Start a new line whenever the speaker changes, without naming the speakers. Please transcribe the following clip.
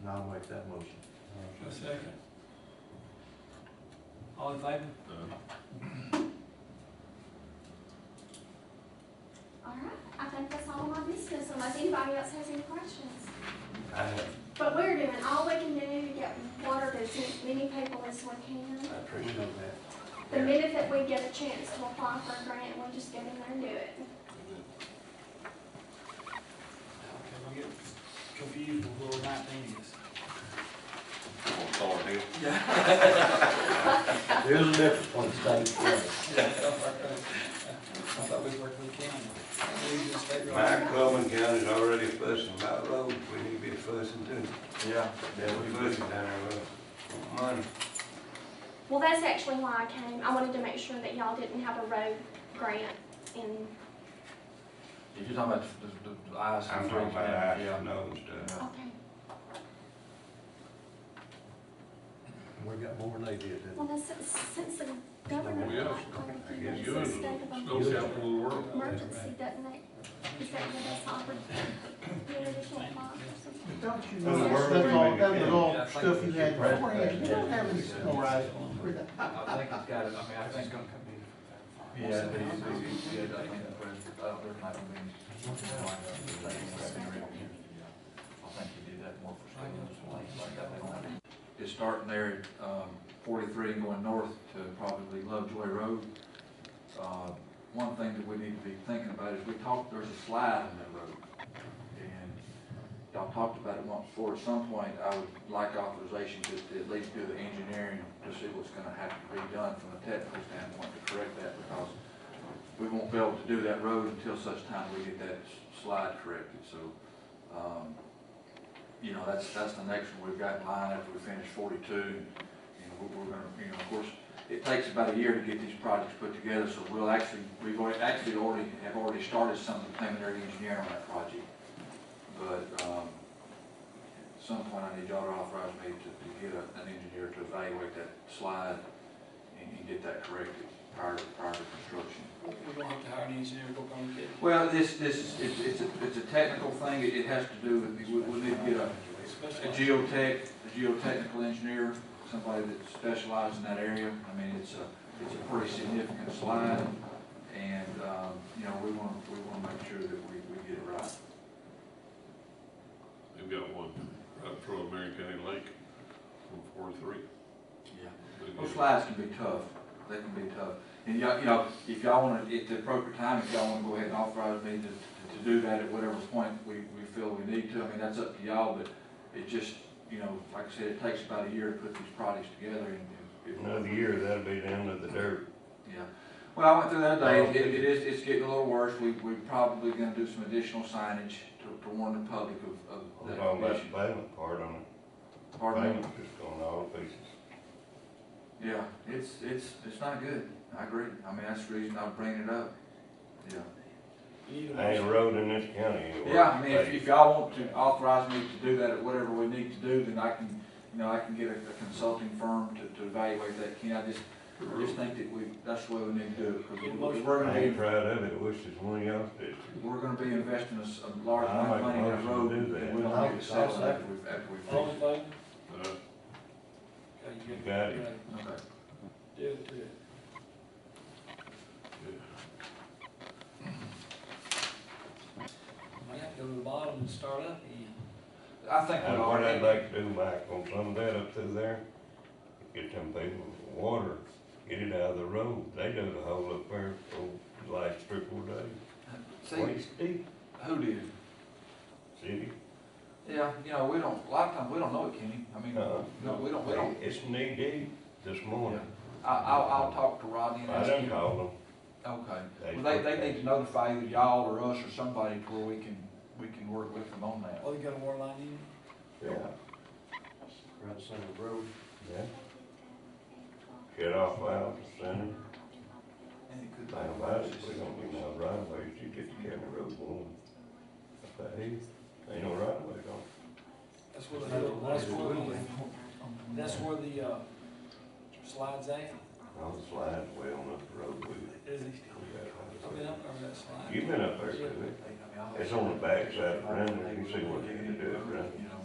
and I'll make that motion.
A second. All in favor?
All right, I think that's all of my business unless anybody else has any questions.
I have,
But we're doing all we can do to get water to as many people as we can.
I appreciate that.
The minute that we get a chance to apply for a grant, we'll just get in there and do it.
Okay, we get confused with what nineteen is.
On Thor Hill.
There's a difference when it's done for
I thought we worked with Ken. We just take-
Mike, Coleman County's already fussing about roads, we need to be fussing too.
us. Yeah.
They're
That we
fussing down there, with money.
Well, that's actually why I came. I wanted to make sure that y'all didn't have a road grant in,
If you're talking about the, the- the eyes.
I'm talking about ice and nose stuff.
okay.
We got more than they did, didn't
Well, then since, since the governor.
Well, yes.
like,
I guess
it's
You
a
and
state of
the snow capital of the world.
Emergency, doesn't that, is that the best opportunity?
Don't you
That's
know,
where
that's
we
all,
make it
that was
in.
all
Yeah, I think
stuff you
we
had
should-
beforehand, you don't have any snow rides.
I think it's got, it. I mean, I think. Yeah, it'd be, it'd be good, I think, uh, but I don't, there might be. I think you do that more for schools, like that, they might. It's starting there at, um, forty-three and going north to probably Lovejoy Road. Uh, one thing that we need to be thinking about is we talked, there's a slide on that road. And y'all talked about it once before, at some point, I would like authorization to to at least do the engineering to see what's gonna have to be done from a technical standpoint to correct that, because we won't be able to do that road until such time we get that s- slide corrected, so, um, you know, that's, that's the next one we've got in line after we finish forty-two, and we're, we're gonna, you know, of course, it takes about a year to get these projects put together, so we'll actually, we've already, actually already, have already started some of the preliminary engineering on that project. But, um, at some point, I need y'all to authorize me to, to get a- an engineer to evaluate that slide and, and get that corrected prior, prior to construction.
We're gonna have to hire an engineer to go come and get
Well, this, this, is- it's, it's, a- it's a technical thing, it, it has to do with, we, we need to get a,
it.
a
Especially-
geotech, a geotechnical engineer, somebody that specializes in that area. I mean, it's a, it's a pretty significant slide, and, um, you know, we wanna, we wanna make sure that we, we get it right.
They've got one right through American Lake from forty-three.
Yeah. Those slides can be tough, they can be tough. And y'all, you know, if y'all wanna, at the appropriate time, if y'all wanna go ahead and authorize me to, to do that at whatever point we, we feel we need to, I mean, that's up to y'all, but it just, you know, like I said, it takes about a year to put these projects together and. and-
Another year, that'll be the end of the dirt.
Yeah, well, I went through that day, it, it is, it's getting a little worse, we, we're probably gonna do some additional signage to, to warn the public of, of
What
that
about
condition.
that pavement part on it?
Pardon me?
Pavement just going all to pieces.
Yeah, it's, it's, it's not good, I agree, I mean, that's the reason I'm bringing it up, yeah.
You need a
Ain't a
motion.
road in this county anywhere.
Yeah, I mean, if, if y'all want to authorize me to do that at whatever we need to do, then I can, you know, I can get a a consulting firm to, to evaluate that, Ken, I just, I just think that we, that's the way we need to do it, because we're, we're
I
gonna
ain't
be,
proud of it, I wish there's one else did.
we're gonna be investing a, s- a large
I'll
amount of
make a
money in that
motion
road,
to do that.
and we don't need to sell it after we've, after we've
All in
fixed
favor?
Uh,
Okay, you
Got
it.
it.
it. Okay.
Do it, do it. Might have to go to the bottom and start up again.
I think we
And
are.
what I'd like to do, Mike, on some of that up through there, get them people water, get it out of the road. They dug a hole up there for the last three, four days.
See,
Waist deep,
who did?
city.
Yeah, you know, we don't, a lot of times, we don't know it, Kenny, I mean,
Uh,
no, we don't, we don't,
It's knee deep this morning.
I, I'll, I'll talk to Rodney and
I
ask
done
him.
called them.
Okay,
They-
well, they, they need to notify either y'all or us or somebody to where we can, we can work with them on that.
Oh, you got a water line in?
Yeah,
Right center of the road.
yeah. Shut off valves, center.
And it could be.
Thing about it, we don't need no right of ways. You get the county road going. Up that hill, ain't no right of ways on it.
That's where the, that's where the, that's where the, uh, slides at,
All the slides way on up the road. We-
is it? I've
we
been
got
up over that slide.
You've been up there, too. It's on the backside of Brandon, you can see what they can do at Brandon.
You know,
Oh.